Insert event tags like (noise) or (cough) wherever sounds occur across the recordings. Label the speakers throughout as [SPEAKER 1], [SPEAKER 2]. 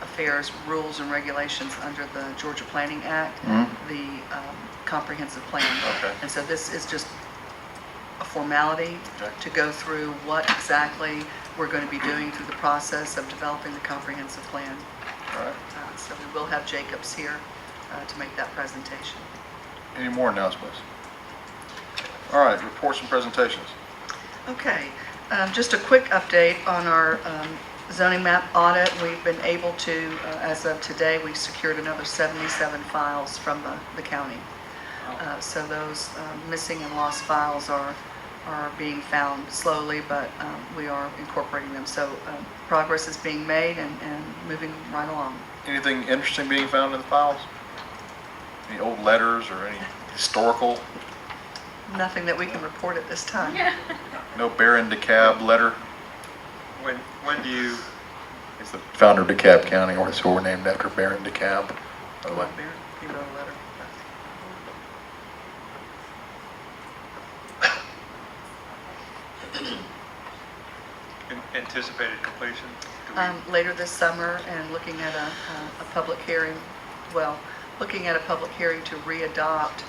[SPEAKER 1] Affairs rules and regulations under the Georgia Planning Act, the um, comprehensive plan.
[SPEAKER 2] Mm-hmm. Okay.
[SPEAKER 1] And so this is just a formality
[SPEAKER 2] Okay.
[SPEAKER 1] to go through what exactly we're going to be doing through the process of developing the comprehensive plan.
[SPEAKER 2] All right.
[SPEAKER 1] Uh, So we will have Jacobs here uh, to make that presentation.
[SPEAKER 2] Any more announcements? All right, reports and presentations.
[SPEAKER 1] Okay, um, just a quick update on our um, zoning map audit. We've been able to, uh, as of today, we secured another 77 files from the- the county. Uh, So those um, missing and lost files are, are being found slowly, but um, we are incorporating them. So um, progress is being made and, and moving right along.
[SPEAKER 2] Anything interesting being found in the files? Any old letters or any historical?
[SPEAKER 1] Nothing that we can report at this time.
[SPEAKER 2] No Baron DeKalb letter?
[SPEAKER 3] When, when do you,
[SPEAKER 2] It's the founder of DeKalb County, or it's we're named after Baron DeKalb. By
[SPEAKER 1] Oh,
[SPEAKER 2] the way.
[SPEAKER 1] He wrote a letter.
[SPEAKER 3] an- anticipated completion? Do we-
[SPEAKER 1] um, later this summer and looking at a, uh, a- a public hearing, well, looking at a public hearing to re-adopt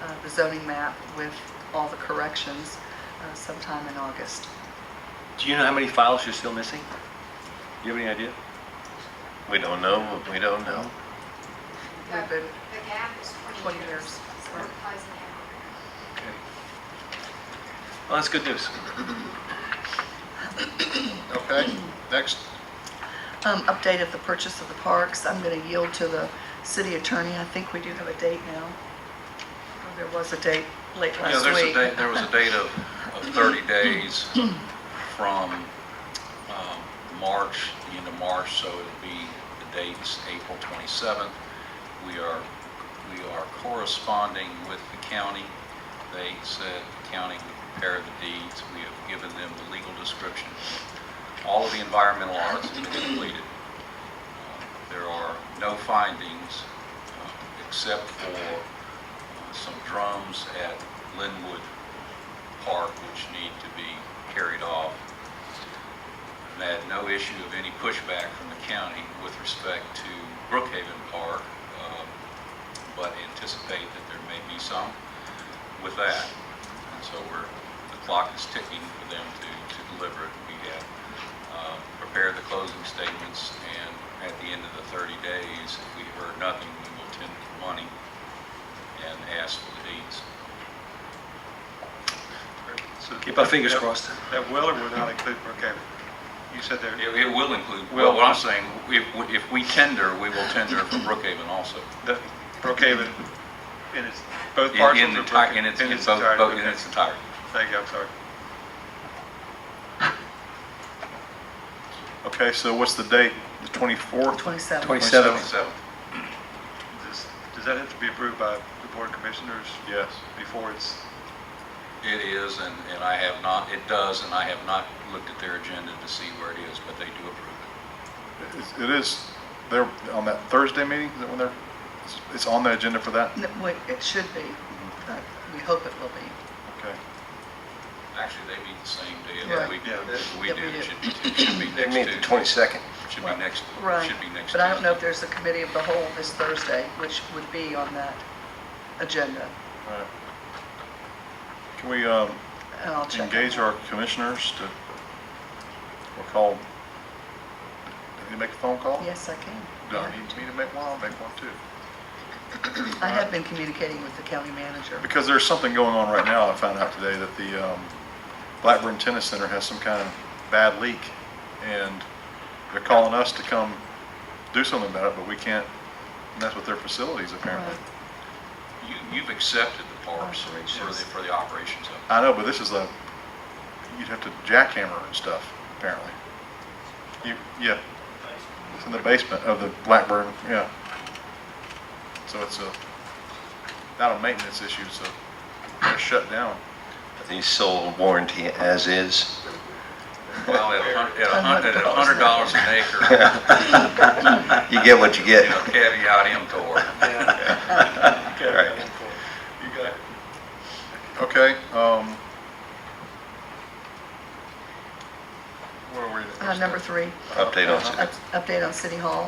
[SPEAKER 1] uh, the zoning map with all the corrections uh, sometime in August.
[SPEAKER 4] Do you know how many files you're still missing? Do you have any idea?
[SPEAKER 5] We don't know what we don't know.
[SPEAKER 6] The
[SPEAKER 1] We've been-
[SPEAKER 6] the gap is
[SPEAKER 1] 20
[SPEAKER 6] 20 years.
[SPEAKER 1] years.
[SPEAKER 6] So it applies in every-
[SPEAKER 4] Okay. Well, that's good news.
[SPEAKER 2] Okay, next.
[SPEAKER 1] Um, Update of the purchase of the parks, I'm going to yield to the city attorney, I think we do have a date now. Or There was a date late
[SPEAKER 7] Yeah,
[SPEAKER 1] last
[SPEAKER 7] there's a
[SPEAKER 1] week.
[SPEAKER 7] date, there was a date of, of 30 days from um, March, the end of March, so it'll be, the date's April 27th. We are, we are corresponding with the county. They said the county would prepare the deeds. We have given them the legal description. All of the environmental audits have been completed. Uh, There are no findings uh, except for uh, some drums at Linwood Park which need to be carried off. And I had no issue of any pushback from the county with respect to Brookhaven Park, um, but anticipate that there may be some with that. And so we're, the clock is ticking for them to to deliver it. We have um, prepared the closing statements, and at the end of the 30 days, if we heard nothing, we will tender the money and ask for the deeds.
[SPEAKER 3] so
[SPEAKER 4] Keep our fingers
[SPEAKER 3] that-
[SPEAKER 4] crossed.
[SPEAKER 3] That will or will not include Brookhaven? You said there,
[SPEAKER 7] It it will include, well, what I'm saying, if, if we tender, we will tender for Brookhaven also.
[SPEAKER 3] the Brookhaven, in its, both
[SPEAKER 7] In-
[SPEAKER 3] parcels
[SPEAKER 7] In
[SPEAKER 3] of
[SPEAKER 7] enti-
[SPEAKER 3] Brookhaven?
[SPEAKER 7] in its, in both,
[SPEAKER 3] entirety,
[SPEAKER 7] both- in
[SPEAKER 3] okay.
[SPEAKER 7] its entirety.
[SPEAKER 3] Thank you, I'm sorry.
[SPEAKER 2] Okay, so what's the date? The 24th?
[SPEAKER 1] 27.
[SPEAKER 2] 27th.
[SPEAKER 7] So,
[SPEAKER 3] Does, does that have to be approved by the Board of Commissioners
[SPEAKER 2] Yes.
[SPEAKER 3] before it's,
[SPEAKER 7] it is, and, and I have not, it does, and I have not looked at their agenda to see where it is, but they do approve it.
[SPEAKER 2] It's- It is, they're, on that Thursday meeting, is that when they're, it's- it's on the agenda for that?
[SPEAKER 1] No, wait, It should be, but we hope it will be.
[SPEAKER 2] Okay.
[SPEAKER 7] Actually, they meet the same day
[SPEAKER 1] Right.
[SPEAKER 7] that we,
[SPEAKER 3] Yeah.
[SPEAKER 7] we
[SPEAKER 1] Yeah, we
[SPEAKER 7] do.
[SPEAKER 1] do.
[SPEAKER 7] It should be- it should be
[SPEAKER 5] They
[SPEAKER 7] next
[SPEAKER 5] meet the
[SPEAKER 7] Tuesday.
[SPEAKER 5] 22nd.
[SPEAKER 7] Should be next,
[SPEAKER 1] Right,
[SPEAKER 7] should be next
[SPEAKER 1] but I don't know if
[SPEAKER 7] Tuesday.
[SPEAKER 1] there's a committee of the whole this Thursday, which would be on that agenda,
[SPEAKER 2] All right. Can we um,
[SPEAKER 1] and I'll check.
[SPEAKER 2] engage our commissioners to, or call, did you make a phone call?
[SPEAKER 1] Yes, I can.
[SPEAKER 2] Do I need me to make one? I'll make one too.
[SPEAKER 1] I have been communicating with the county manager.
[SPEAKER 2] Because there's something going on right now, I found out today, that the um, Blackburn Tennis Center has some kind of bad leak, and they're calling us to come do something about it, but we can't mess with their facilities apparently.
[SPEAKER 1] Right.
[SPEAKER 7] You, you've accepted the parks for the,
[SPEAKER 1] Operations.
[SPEAKER 7] for the operations of it.
[SPEAKER 2] I know, but this is a, you'd have to jackhammer and stuff, apparently. You, yeah. It's in the basement of the Blackburn, yeah. So it's a, not a maintenance issue, so they're shut down.
[SPEAKER 5] They sold warranty as is. (laughs)
[SPEAKER 7] Well, at a hun- at a hun- at
[SPEAKER 1] (laughs)
[SPEAKER 7] a hundred dollars an acre,
[SPEAKER 5] You get what you
[SPEAKER 7] you
[SPEAKER 5] get.
[SPEAKER 7] know, caveat emptor.
[SPEAKER 5] Right.
[SPEAKER 3] you got it?
[SPEAKER 2] Okay, um. Where were we?
[SPEAKER 1] Uh, Number three,
[SPEAKER 5] Update on
[SPEAKER 1] up- update on City Hall.